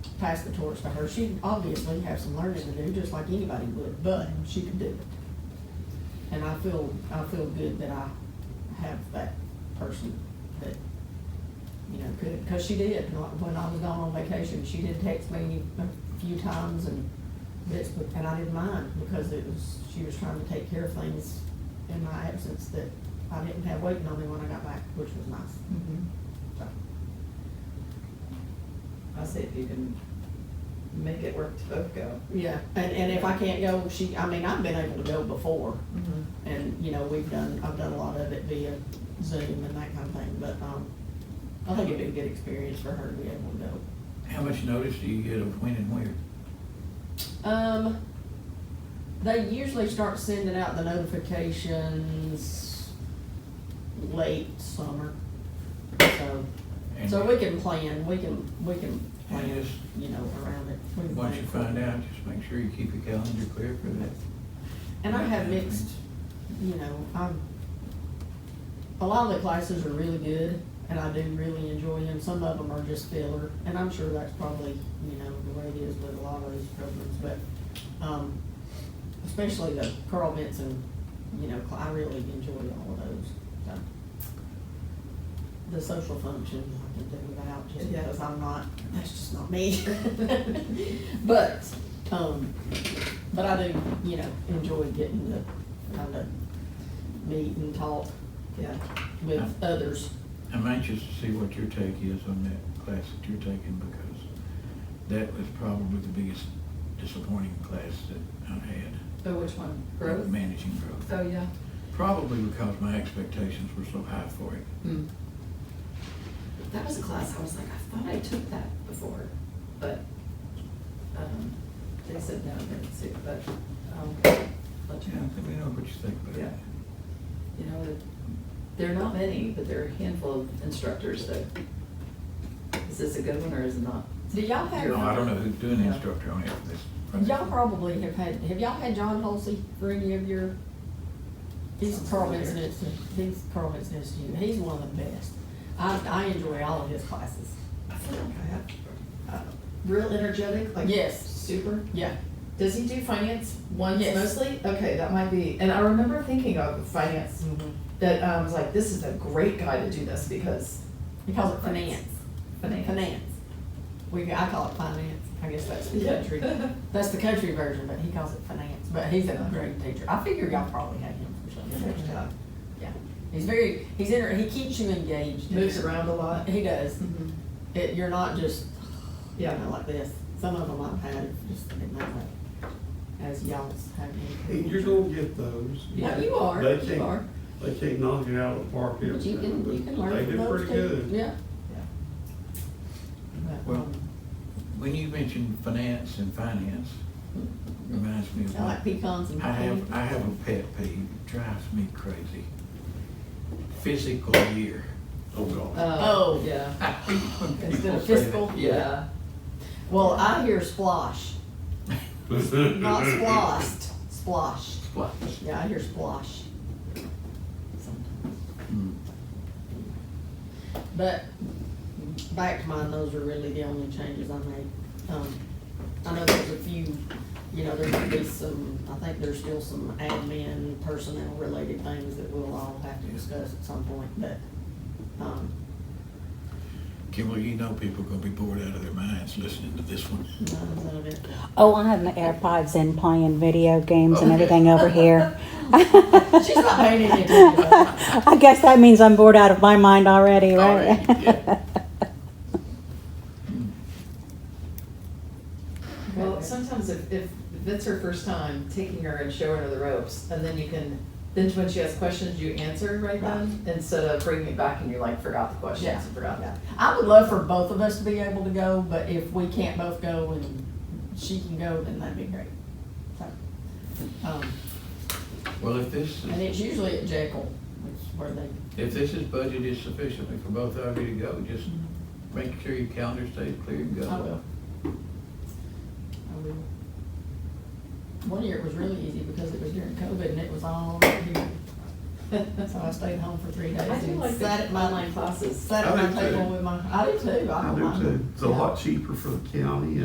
pass the torch to her. She obviously has some learning to do, just like anybody would, but she can do it. And I feel, I feel good that I have that person that, you know, could, because she did, Like, when I was gone on vacation, she did text me a few times and this, but, and I didn't mind, because it was, she was trying to take care of things in my absence that I didn't have waiting on me when I got back, which was nice, Mhm. so. I see if you can make it work to both go. Yeah, and, and if I can't go, she, I mean, I've been able to go before, Mm-hmm. and, you know, we've done, I've done a lot of it via Zoom and that kind of thing, but, um, I think it'd be a good experience for her to be able to go. How much notice do you get of when and where? Um, they usually start sending out the notifications late summer, so, And so we can plan, we can, we can And plan, just- you know, around it. We can plan Once you accordingly. find out, just make sure you keep your calendar clear for that. And I have mixed, you know, I'm, a lot of the classes are really good, and I do really enjoy them, some of them are just filler, and I'm sure that's probably, you know, the way it is with a lot of these programs, but, um, especially the Carl Benson, you know, cl- I really enjoy all of those, so. The social function, I can do without, just Yeah. because I'm not, that's just not me. But, um, but I do, you know, enjoy getting to kind of meet and talk Yeah, with others. I'm anxious to see what your take is on that class that you're taking because that was probably the biggest disappointing class that I had, so which one? Growth? managing growth. Oh, yeah. Probably because my expectations were so high for it. Hmm. That was a class, I was like, I thought I took that before, but, um, they said no, they didn't see it, but, um, let you Yeah, I know. think we know what you think about it. Yeah. You know, it- there are not many, but there are a handful of instructors that, is this a good one or is it not? Do y'all have? No, I don't know who's doing Yeah. the instructor on it for this. for this. Y'all probably have had, have y'all had John Holsey for any of your? He's Sounds Carl familiar. Benson, Institute. he's Carl Benson Institute, he's one of the best. I, I enjoy all of his classes. I feel like I have. Uh, real energetic, like Yes, super. yeah, Does he do finance once Yes. mostly? Okay, that might be. And I remember thinking of finance Mm-hmm. that um, I was like, this is a great guy to do this because he calls it finance, finance. finance. We, I call it finance, I guess that's the Yeah. country, that's the country version, but he calls it finance, but he's a great teacher. I figure y'all probably had him for something. Yeah. Yeah, he's very, he's inter, he keeps you engaged. Moves around a lot. He does. Mhm. It, you're not just, you Yeah. know, like this. Some of them I've had, just didn't know that, as y'all's having. And you're gonna get those. Yeah. Yeah, you are, They you are. can't, they can't knock it out of the park But every you time, can, you can but they learn from did those pretty too. good. Yeah. But, Well, um, When you mentioned finance and finance, reminds me of. I one- like pecans and. I have, I have a pet peeve, drives me crazy. Physical year. Oh, God. Oh. Yeah, I hate when Instead people of say that. fiscal? yeah. Well, I hear splosh, not splossed, splosh. What? Yeah, I hear splosh. Sometimes. Hmm. But back to mine, those are really the only changes I made. Um, I know there's a few, you know, there could be some, I think there's still some admin personnel related things that we'll all have to discuss at some point, but, um, Kimball, you know people gonna be bored out of their minds listening to this one. none of it. Oh, I have my AirPods in playing video games and everything over here. She's not paying any attention. to that. I guess that means I'm bored out of my mind already, Oh, right? Already, yeah. Well, sometimes if, if if it's her first time, taking her and showing her the ropes, and then you can, then when she asks questions, you answer right then instead of bringing it back and you like forgot the Yeah. questions and forgot that. I would love for both of us to be able to go, but if we can't both go and she can go, then that'd be great. So, um, Well, if this, And is- it's usually at Jekyll, which is where they, if this is budgeted sufficiently for both of you to go, just make sure your calendar stays clear and go. I will. I will. One year it was really easy because it was during COVID and it was all here. So I stayed home for three days I do and like sat at my, online classes. sat at I my do table too. with my, I do too. I don't do mind. too. It's a Yeah. lot cheaper for the county